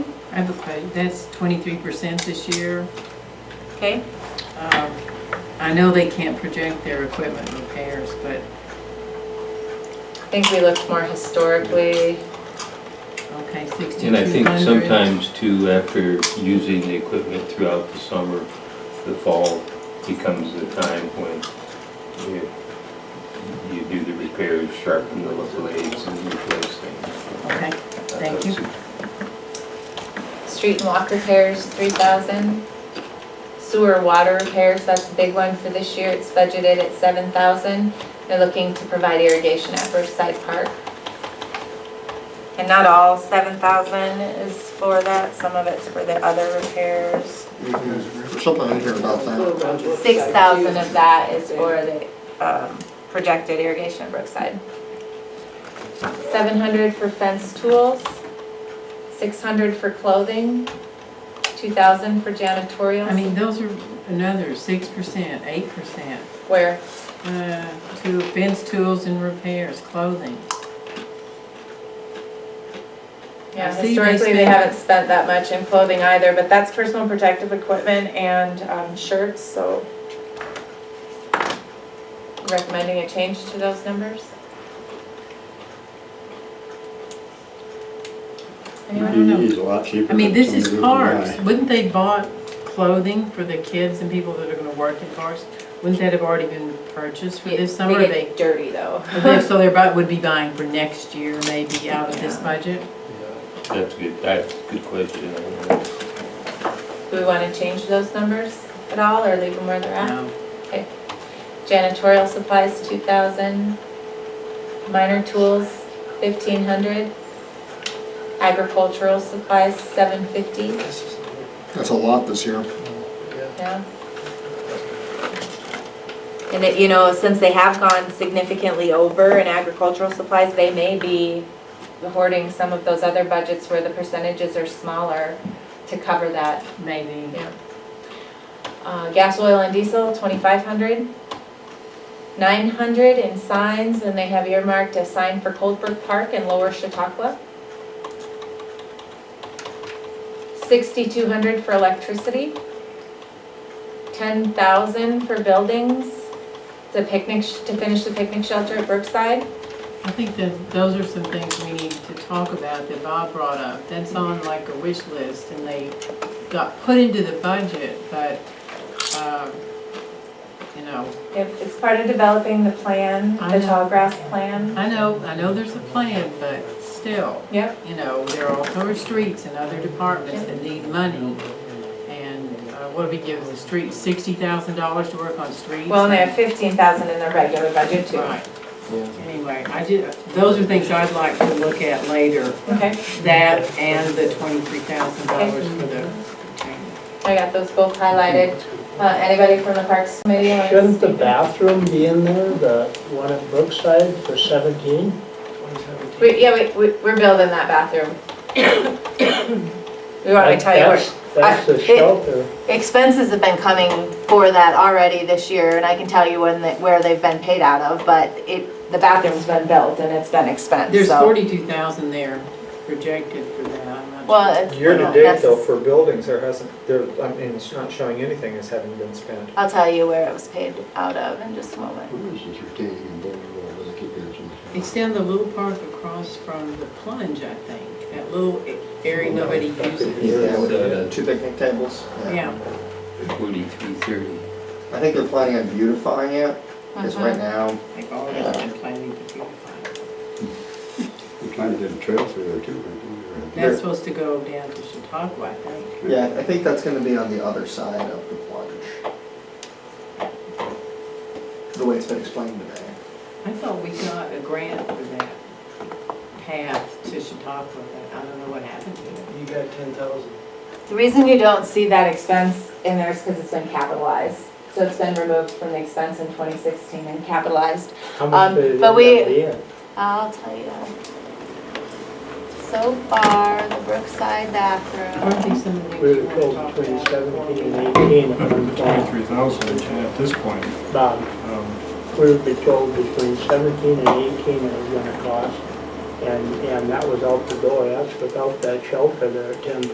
I have a question, that's twenty-three percent this year. Okay, Um, I know they can't project their equipment repairs, but, I think we looked more historically. okay, sixty-two And hundred. I think sometimes too, after using the equipment throughout the summer, the fall becomes the time when you, you do the repairs, sharpen the blades and replace things. Okay, Thank you. Street and walk repairs, three thousand. Sewer water repairs, that's a big one for this year, it's budgeted at seven thousand. They're looking to provide irrigation at Riverside Park. And not all seven thousand is for that, some of it's for the other repairs. There's something in here about that. Six thousand of that is for the, um, projected irrigation at Brookside. Seven hundred for fence tools, six hundred for clothing, two thousand for janitorial. I mean, those are another six percent, eight percent, Where? uh, to fence tools and repairs, clothing. Yeah, I see they historically, they spend- haven't spent that much in clothing either, but that's personal protective equipment and, um, shirts, so. Recommending a change to those numbers? Anyone? don't know. He's a lot cheaper. I mean, than this is somebody who cars, can buy. wouldn't they bought clothing for the kids and people that are gonna work in cars? Wouldn't that have already been purchased for this summer, Or They they, get dirty, though. or they- so they're about, would be buying for next year, maybe out of this Yeah. budget? That's a good, that's a good question. I don't know. Do we want to change those numbers at all, or leave them where they're at? No. Janitorial supplies, two thousand. Minor tools, fifteen hundred. Agricultural supplies, seven fifty, That's a lot this year. yeah. And that, you know, since they have gone significantly over in agricultural supplies, they may be, Hoarding some of those other budgets where the percentages are smaller to cover that. Maybe. Yeah. Uh, gas, oil, and diesel, twenty-five hundred. Nine hundred in signs, and they have earmarked a sign for Coldbrook Park and Lower Chautauqua. Sixty-two hundred for electricity. Ten thousand for buildings, the picnic, sh- to finish the picnic shelter at Brookside. I think that those are some things we need to talk about that Bob brought up. That's on like a wish list and they got put into the budget, but, um, you know, If It's part of developing the plan, I the know. tall grass plan. I know, I know there's a plan, but still. Yep. You know, there are other streets and other departments that need money. And uh, what do we give the street, sixty thousand dollars to work on streets? Well, and they have fifteen thousand in their regular budget too. Right. Anyway, I did, those are things I'd like to look at later, Okay. that and the twenty-three thousand dollars for the. I got those both highlighted. Uh, anybody from the Parks Committee? wants- Shouldn't the bathroom be in there, the one at Brookside for 17? We, yeah, we, we, we're building that bathroom. We want to tell you, That's- we're- That's I- the it- shelter. expenses have been coming for that already this year, and I can tell you when, they- where they've been paid out of, but it, the bathroom's been built and it's been expensed, There's so. forty-two thousand there projected for that, I'm not Well, it's. Year to date though, that's- for buildings, there hasn't, there, I mean, it's not showing anything as having been spent. I'll tell you where it was paid out of in just a moment. Where is this retaining and building wall that I keep mentioning? Extend the little park across from the plunge, I think, that little area nobody uses. Yeah, with the- two picnic tables. Yeah, Forty-three thirty. I think they're planning on beautifying it, because right now, they've always been planning to beautify. it. We kind of did a trail through there too, right? That's supposed to go down to Chautauqua, I think. yeah, I think that's gonna be on the other side of the plunge. The way it's been explained today. I thought we got a grant for that path to Chautauqua, but I don't know what happened to it. You got 10,000. the reason you don't see that expense in there is because it's been capitalized. So it's been removed from the expense in twenty sixteen and capitalized. How much Um, did it but end up we- being? I'll tell you. So far, the Brookside Aren't bathroom, these some of the We things you were want to told talk between about? 17 and 18, $120. Twenty-three thousand at this point. Bob, Um, we would be told between 17 and 18 it was going to cost. And, and that was out the door, that's without that shelter there at 10,000.